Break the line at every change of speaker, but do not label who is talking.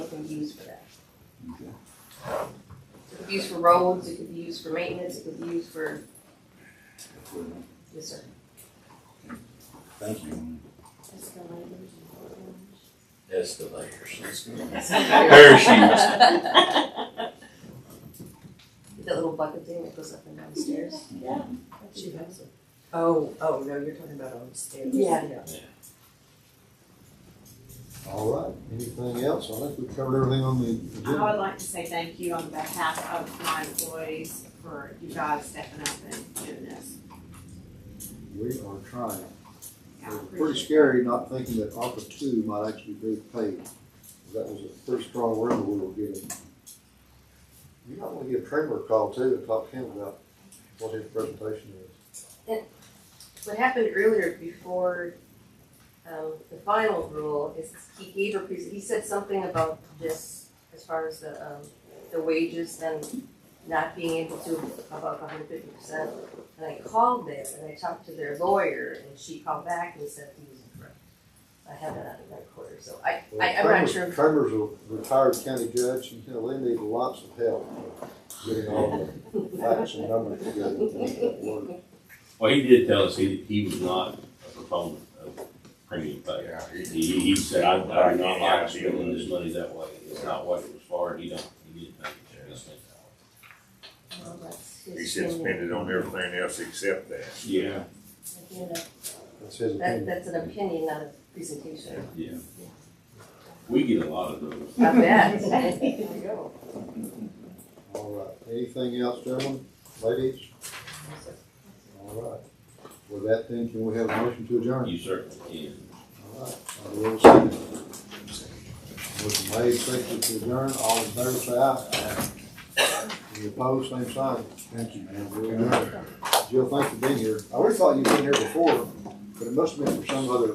be used for that.
Okay.
It could be used for roads, it could be used for maintenance, it could be used for, yes, sir.
Thank you.
Escalators.
That little bucket thing that goes up and down the stairs.
Yeah.
She has it.
Oh, oh, no, you're talking about on the stairs.
Yeah.
All right, anything else? I think we covered everything on the
I
agenda.
would like to say thank you on behalf of my employees for you guys stepping up and doing this.
We are trying.
I
It's Pretty
appreciate it.
scary not thinking that ARPA two might actually be paid. That was the first straw word we were getting. You might want to give Trevor a call too and talk to him about what his presentation is.
What happened earlier before, um, the final rule is he gave a pres he said something about this as far as the, um, the wages and not being able to above hundred fifty percent. And I called them and I talked to their lawyer and she called back and said he was incorrect. I had that out of my quarter, so I, I, I'm
Well,
not sure.
Trevor's- Trevor's a retired county judge, and you know, they need lots of help getting all the facts and numbers together. and things that work.
Well, he did tell us he, he was not a proponent of premium pay.
Yeah,
He, he said, I, I do not like spending this money that way, it's not what it was for, and he don't, he didn't think it should be spent that
Well, that's his
He should
opinion.
spend it on everything else except that.
way. Yeah.
Again, that-
That's his
That,
opinion.
that's an opinion, not a presentation.
Yeah. We get a lot of those.
I bet. There you go.
All right, anything else, gentlemen, ladies? All right. With that then, can we have a motion to adjourn?
You certainly can.
All right, I will second. Motion made, seconded to adjourn, all in favor, say aye. Any opposed, same sign. Thank you, man. Jill, thanks for being here. I always thought you'd been here before, but it must have been for some other